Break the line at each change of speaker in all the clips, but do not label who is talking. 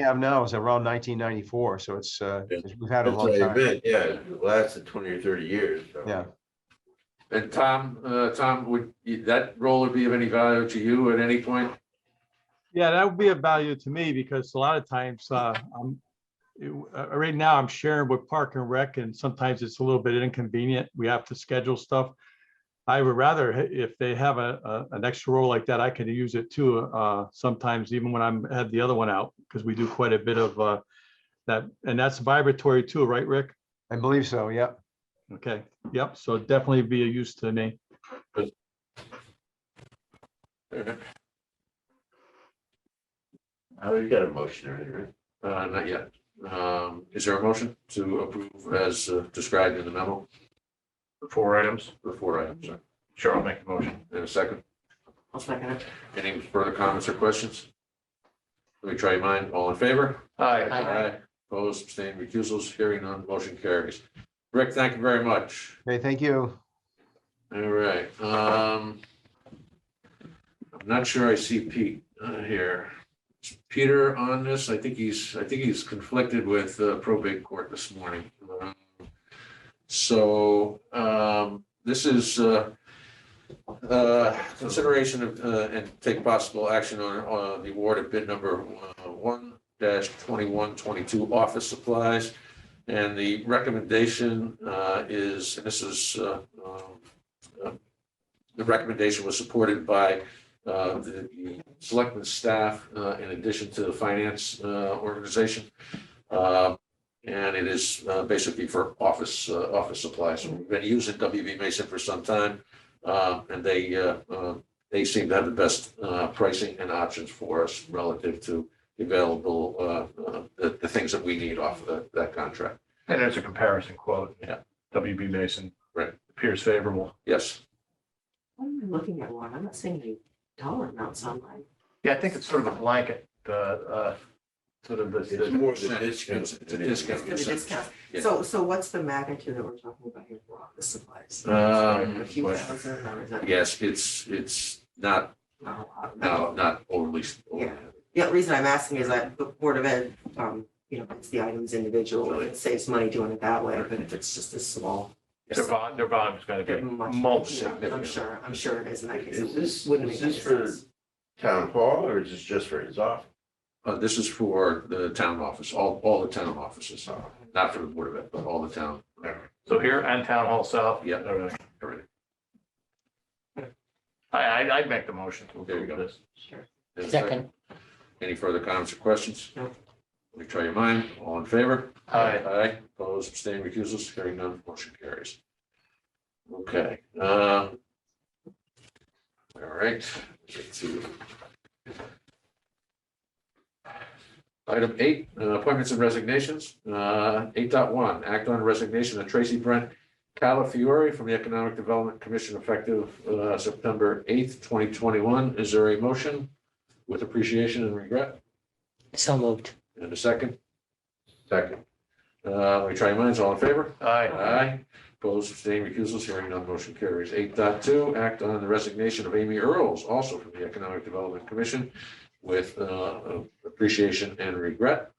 have now is around nineteen ninety-four, so it's, uh,
Yeah.
it's- we've had a
That's
long
what I
time.
meant, yeah, it lasted twenty or thirty years. so.
Yeah.
And Tom, uh, Tom, would you- that roller be of any value to you at any point?
Yeah, that would be of value to me because a lot of times, uh, I'm, you- uh, right now I'm sharing with Park and Rec and sometimes it's a little bit inconvenient. We have to schedule stuff. I would rather, h- if they have a, a, an extra role like that, I can use it too, uh, sometimes even when I'm, had the other one out, because we do quite a bit of, uh, that, and that's vibratory too, right, Rick?
I believe so, yeah.
Okay, yep, so definitely be a use to me.
Oh, you got a motion already, right?
Uh, not yet. Um, is there a motion to approve as uh, described in the memo? The four items? The four items, sorry. Sure, I'll make the motion. In a second.
I'll second it.
Any further comments or questions? Let me try your mind. All in favor?
Aye.
Opposed, abstained, recusals, hearing none, motion carries. Rick, thank you very much.
Okay, thank you.
All right, um. I'm not sure I see Pete uh, here. Is Peter on this, I think he's, I think he's conflicted with uh, probate court this morning. Um, So, um, this is, uh, uh, consideration of, uh, and take possible action on, on the award of bid number uh, one dash twenty-one twenty-two office supplies. And the recommendation, uh, is, and this is, uh, um, the recommendation was supported by uh, the the selectmen staff uh, in addition to the finance uh, organization. Uh, And it is uh, basically for office, uh, office supplies. We've been using WB Mason for some time. uh, And they, uh, uh, they seem to have the best uh, pricing and options for us relative to the available, uh, uh, the, the things that we need off of that- that contract.
And there's a comparison quote.
Yeah.
WB Mason.
Right.
Appears favorable.
Yes.
What am I looking at one? I'm not seeing any dollar amounts online.
Yeah, I think it's sort of a blanket, the, uh, sort of the- uh,
It's
the,
more than discount.
It's- it's a
than anything.
discount.
Give a discount.
Yeah.
So, so what's the magnitude that we're talking about here for office supplies?
Uh,
Um,
A few thousand or is that?
Yes, it's, it's not,
not a lot?
no, not overly.
Yeah. Yeah, the reason I'm asking is that the Board of Ed, um, you know, it's the items individual, it saves money doing it that way, but if it's just a small.
their bond, their bond is gonna
they're
be
much-
mulch.
yeah, I'm sure, I'm sure it is in that case.
Is this-
Wouldn't
is
make any
this for-
sense.
Town hall, or is this just for his office?
Uh, this is for the town office, all, all the town offices, not for the Board of Ed, but all the town.
So here and Town Hall South.
Yeah.
everything.
everything.
I, I, I'd make the motion to
There you
approve
go.
this.
Sure.
Is there a Any further comments or questions?
No.
Let me try your mind. All in favor?
Aye.
Aye, opposed, abstaining, recusals, hearing none, motion carries. Okay, um. All right. get to- Item eight, uh, appointments and resignations, uh, eight dot one, act on resignation of Tracy Brent Calafiore from the Economic Development Commission effective, uh, September eighth, twenty twenty-one. Is there a motion with appreciation and regret?
So moved.
And a second? Second. Uh, let me try your minds. All in favor?
Aye.
Aye. Opposed, abstaining, recusals, hearing none, motion carries. Eight dot two, act on the resignation of Amy Earls, also from the Economic Development Commission with, uh, appreciation and regret.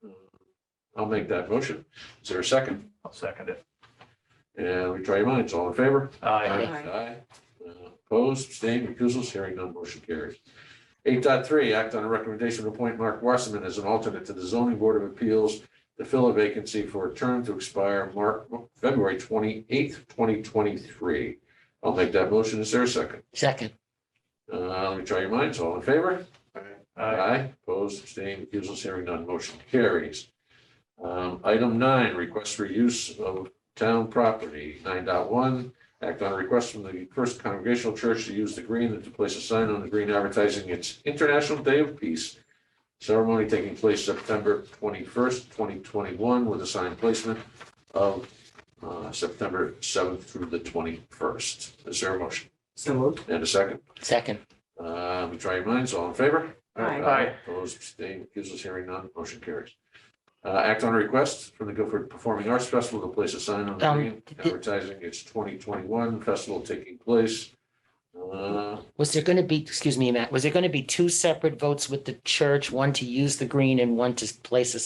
I'll make that motion. Is there a second?
I'll second it.
And let me try your minds. All in favor?
Aye.
Aye. Uh, Opposed, abstained, recusals, hearing none, motion carries. Eight point three. act on a recommendation to appoint Mark Wasserman as an alternate to the zoning board of appeals to fill a vacancy for a term to expire Mark, February twenty-eighth, twenty twenty-three. I'll make that motion. Is there a second?
Second.
Uh, let me try your minds. All in favor? Aye. Opposed, abstained, recusals, hearing none, motion carries. Um, item nine, request for use of town property, 9.1. Act on a request from the First Congregational Church to use the green and to place a sign on the green advertising its International Day of Peace. Ceremony taking place September twenty-first, twenty twenty-one, with a sign placement of, uh, September seventh through the twenty-first. Is there a motion?
So moved.
And a second?
Second.
Uh, we try your minds, all in favor?
Aye.
Aye.
Opposed, abstained, recusals, hearing none, motion carries. Uh, act on a request from the Guilford Performing Arts Festival to place a sign on the
Um,
green
did-
advertising its twenty twenty-one festival taking place Uh,
Was there going to be, excuse me, Matt, was there going to be two separate votes with the church, one to use the green and one to place a